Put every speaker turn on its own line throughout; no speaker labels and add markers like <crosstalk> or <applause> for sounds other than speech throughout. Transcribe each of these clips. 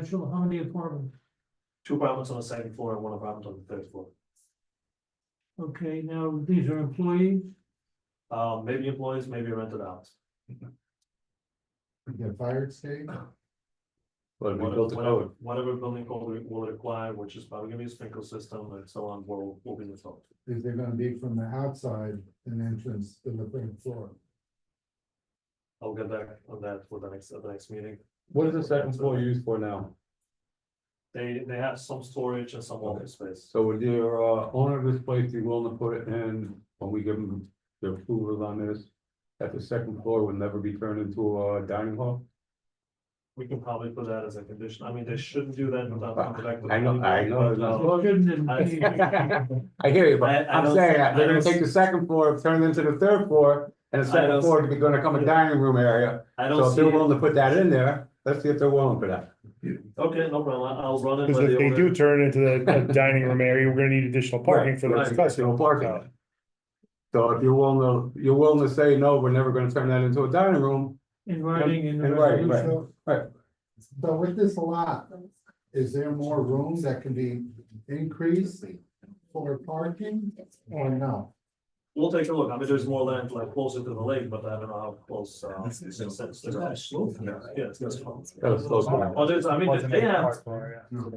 Actual, how many apartments?
Two apartments on the second floor and one apartment on the third floor.
Okay, now these are employees,
Um, maybe employees, maybe rented out.
Get fired state?
But we
Whatever-
built the
whatever-
code,
Whatever building code we will require, which is probably gonna be a sprinkler system and so on, will, will be installed.
Is they're gonna be from the outside an entrance to the third floor?
I'll get back on that for the next, at the next meeting.
what is the second floor used for now?
They, they have some storage and some office space.
So would your uh, owner of this place be willing to put it in, when we give them the approval on this? That the second floor would never be turned into a dining hall?
We can probably put that as a condition. I mean, they shouldn't do that without coming back. to the
I know- I
planning
know
board,
it's not-
but,
It shouldn't
uh,
have been.
I-
I hear you,
I-
but
I
I'm
don't
saying
see-
that, they're
I
gonna
don't
take the second floor, turn it into the third floor, and the
I
second
don't
floor
see-
would be gonna come a dining room area.
I
So
don't
if
see,
they're
it.
willing to put that in there, let's see if they're willing for that.
okay, no problem. I'll run it. by
Because
the
if they
owner.
do turn it into the a dining room area, we're gonna need additional parking for
Right,
the
additional
discussion.
parking. So if you're willing to, you're willing to say, no, we're never gonna turn that into a dining room,
In writing in the
In writing, right.
resolution.
Right.
So with this lot, is there more room that can be increased for parking or no?
We'll take a look. I mean, there's more land like closer to the lake, but I don't know how close, uh. it's- it's- it's- Yeah, it's gonna slope.
that was close enough.
Oh, there's, I mean, they have,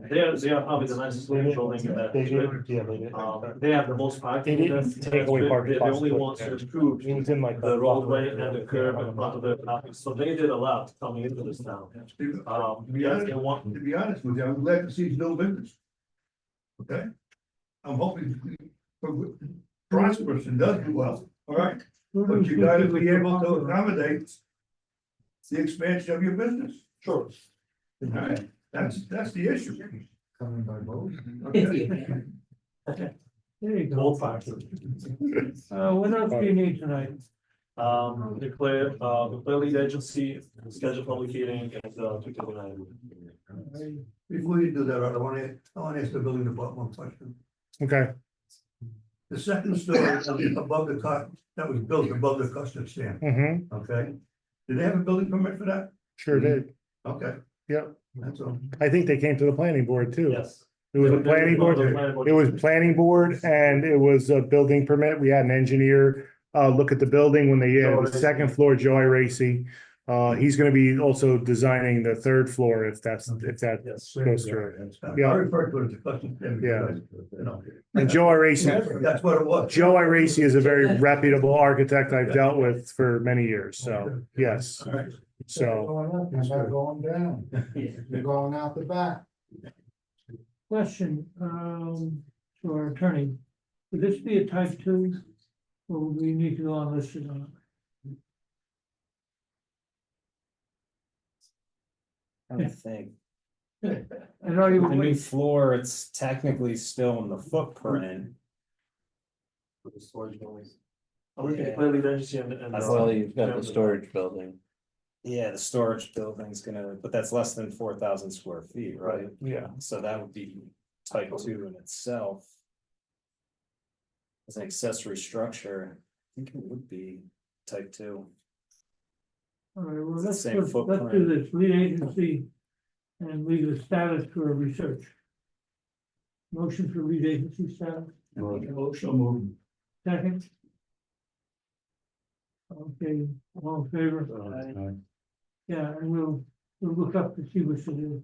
they are, they are probably the nicest looking building in that.
They
district.
did, yeah, they did.
Um, they have the most
They
parking.
didn't
That's-
take away
that's-
parking
They're the
spots,
only
but-
ones to improve
It was in like.
the roadway and the curb in front of the parking. So they did a lot coming into this town. Um, yes, they want,
To be honest with you, I'm glad to see it's no business. Okay? I'm hoping it prospers and does do well, all right? But you gotta be able to accommodate the expansion of your business. Sure. All right, that's, that's the issue.
Coming by boat?
Okay?
There you go.
all parking.
Uh, what else do you need tonight?
Um, declare, uh, declare lead agency, schedule public hearing at, uh, two thirty-nine.
Before you do that, Art, I wanna, I wanna ask the building department one question.
Okay,
The second story above the cut, that was built above the custom stand,
mm-hmm,
okay? Did they have a building permit for that?
sure did.
Okay.
Yep.
That's all.
I think they came to the planning board too.
Yes.
It was a
They- they-
planning board.
the planning board.
It was planning board and it was a building permit. We had an engineer uh look at the building when they,
Joe
uh,
Racy.
the second floor, Joey Racy. Uh, he's gonna be also designing the third floor if that's, if that
Yes.
goes through.
I
Yeah.
refer to it as a custom stand. because, You know,
And Joey Racy,
that's what it was.
Joe Racy is a very reputable architect I've dealt with for many years, so, yes,
All right.
so.
Going up, you're not going down.
<laughs>
You're going out the back.
Question, um, to our attorney, would this be a type two? Or would we need to go on listed on
I don't think.
it? And are you,
The new floor, it's technically still in the footprint.
For the storage buildings. Are we
Yeah.
declare lead agency and, and.
you've got the storage building.
Yeah, the storage building's gonna, but that's less than four thousand square feet, right?
Yeah.
So that would be type two in itself. As an accessory structure, I think it would be type two.
all right, well,
It's the
let's,
same
let's let's do
footprint.
this, lead agency and leave the status for research. Motion for lead agency status.
Motion moved.
Second. Okay, all in favor?
Uh,
Yeah, and we'll, we'll look up to see what to do.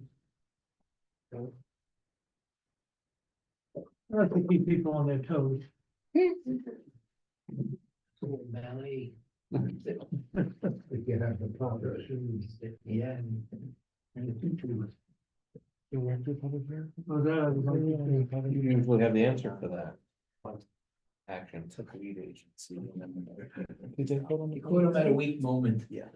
I like to keep people on their toes.
Valley,
If you have the proper shoes.
yeah.
Oh, that I would like to see.
You usually have the answer for that. Action. Took lead agency. Did they call them? You caught them at a weak moment. Yeah.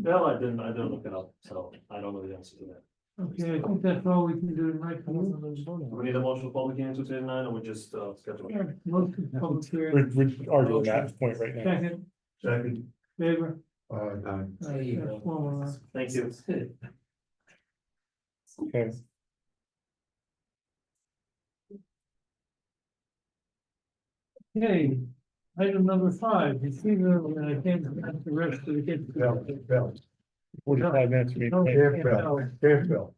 No, I didn't, I didn't look it up, so I don't know the answer to that.
Okay, I think that's all we can do tonight.
Do we need a motion for public hearing two thirty-nine or we just, uh, schedule? it?
Most of the public hearing,
We're, we're arguing that point right now.
second,
Second.
favor.
Aye.
Uh, that's one, uh,
Thank you.
Okay.
Okay, item number five, you see the, and I can't, that's the rest of the.
Forty-five minutes. we-
No, I can't tell.
Fairfield.